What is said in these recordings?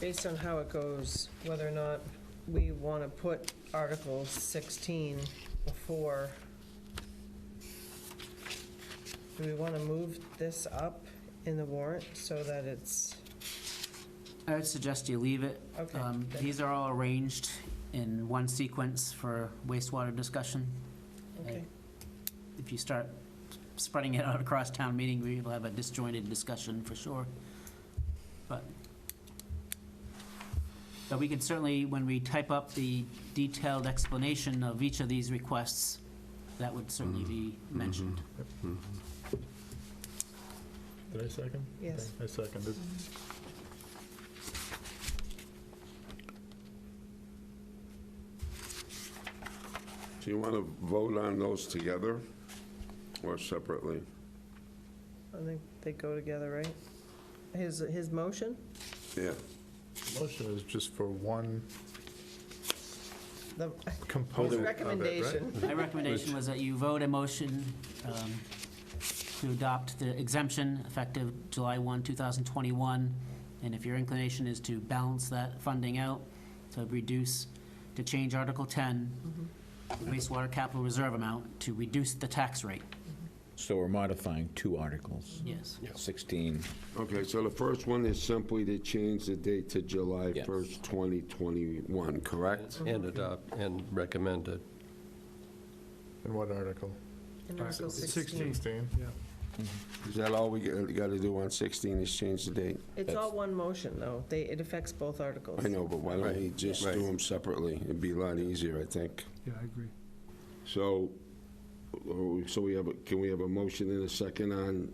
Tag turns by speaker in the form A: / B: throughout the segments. A: based on how it goes, whether or not we want to put Article 16 before, do we want to move this up in the warrant so that it's,
B: I would suggest you leave it.
A: Okay.
B: Um, These are all arranged in one sequence for wastewater discussion.
A: okay,
B: If you start spreading it out across town meeting, we will have a disjointed discussion for sure. But, but we can certainly, when we type up the detailed explanation of each of these requests, that would certainly be mentioned.
C: Did I second?
A: yes.
C: I seconded.
D: Do you want to vote on those together or separately?
A: I think they go together, right? His, his motion?
D: Yeah.
C: Motion is just for one
A: The
C: component
A: his
C: Oh, of it, right?
A: recommendation.
B: My recommendation was that you vote a motion um, to adopt the exemption effective July 1, 2021. And if your inclination is to balance that funding out, to reduce, to change Article 10,
A: Mm-hmm.
B: wastewater capital reserve amount, to reduce the tax rate.
E: So we're modifying two articles,
B: Yes.
E: 16,
D: Okay, so the first one is simply to change the date to July
E: Yes.
D: 1st, 2021, correct?
F: And adopt, and recommend it.
C: In what article?
A: In Article 16.
C: yeah.
D: Is that all we got to do on 16 is change the date?
A: It's all one motion, though. They, it affects both articles.
D: I know, but why don't we
F: Right,
D: just
F: right.
D: do them separately? It'd be a lot easier, I think.
C: Yeah, I agree.
D: So, oh, so we have, a- can we have a motion and a second on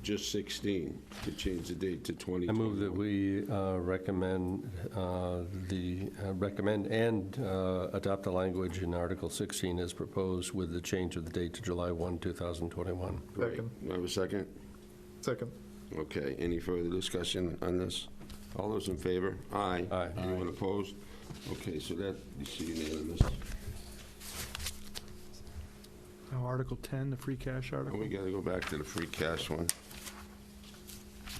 D: just 16 to change the date to 2021?
F: I move that we uh, recommend uh, the, uh, recommend and uh, adopt the language in Article 16 as proposed with the change of the date to July 1, 2021.
D: Great.
C: Second.
D: Do I Have a second?
C: Second.
D: Okay, any further discussion on this? All those in favor? Aye.
F: Aye.
D: Anyone opposed? Okay, so that is unanimous.
G: Now, Article 10, the free cash
D: Now
G: article.
D: we got to go back to the free cash one.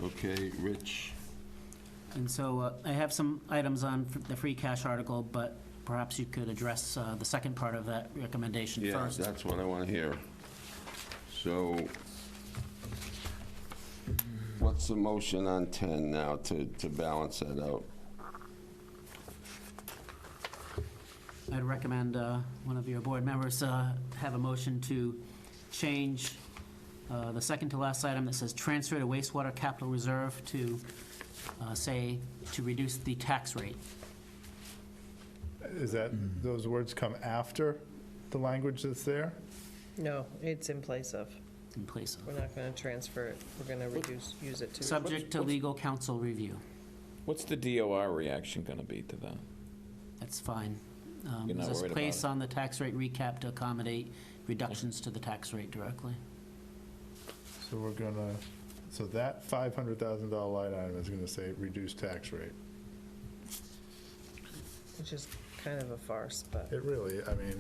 D: Okay, Rich,
B: And so uh, I have some items on f- the free cash article, but perhaps you could address uh, the second part of that recommendation
D: yeah,
B: first.
D: that's what I want to hear. So what's the motion on 10 now to, to balance that out?
B: I'd recommend uh, one of your board members uh, have a motion to change uh, the second to last item that says transfer to wastewater capital reserve to uh, say, to reduce the tax rate.
C: Is that,
B: Mm-hmm.
C: those words come after the language that's there?
A: No, it's in place of.
B: in place of.
A: We're not going to transfer it. We're going to reduce, use it to.
B: Subject to
E: what's-
B: legal counsel review.
E: what's the DOR reaction going to be to that?
B: That's fine. Um,
E: You're not
B: Does this
E: worried about
B: place
E: it?
B: on the tax rate recap to accommodate reductions to the tax rate directly?
C: So we're gonna, so that $500,000 line item is gonna say reduced tax rate.
A: Which is kind of a farce, but
C: It really, I mean,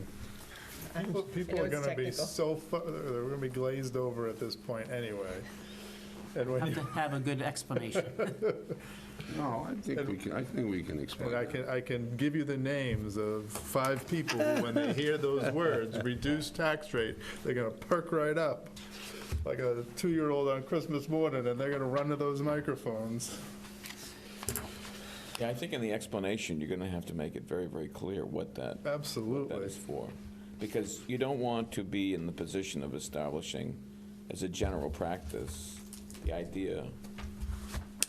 C: people- people
A: know
C: are
A: it's
C: gonna be
A: technical.
C: so, fu- they're gonna be glazed over at this point anyway. And when
B: Have
C: you
B: to have a good explanation.
D: No, I think we can, I think we can explain
C: And I
D: that.
C: can, I can give you the names of five people who, when they hear those words, reduced tax rate, they're gonna perk right up, like a two-year-old on Christmas morning, and they're gonna run to those microphones.
E: Yeah, I think in the explanation, you're going to have to make it very, very clear what that, what that
C: Absolutely.
E: is for. Because you don't want to be in the position of establishing, as a general practice, the idea,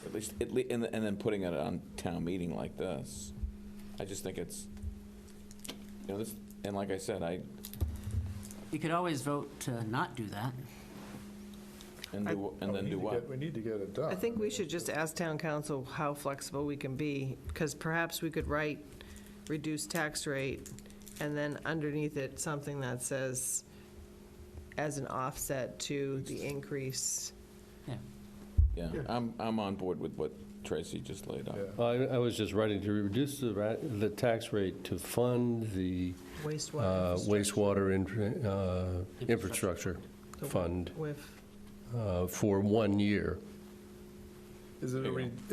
E: at least, at le- and and then putting it on town meeting like this. I just think it's, you know, this, and like I said, I,
B: You could always vote to not do that.
E: and
A: I-
E: do- and then
C: We
E: do
C: need to
E: what?
C: get- We need to get it done.
A: I think we should just ask town council how flexible we can be, because perhaps we could write reduced tax rate, and then underneath it, something that says as an offset to the increase.
B: Yeah.
E: Yeah, I'm, I'm on board with what Tracy just laid out.
C: Yeah.
F: I, I was just writing to reduce the, ra- the tax rate to fund the
A: Wastewater
F: uh,
A: infrastructure
F: wastewater infra- uh,
B: Infrastructure.
F: infrastructure fund
A: with
F: uh, for one year.
C: Is it a,
E: There you
C: re-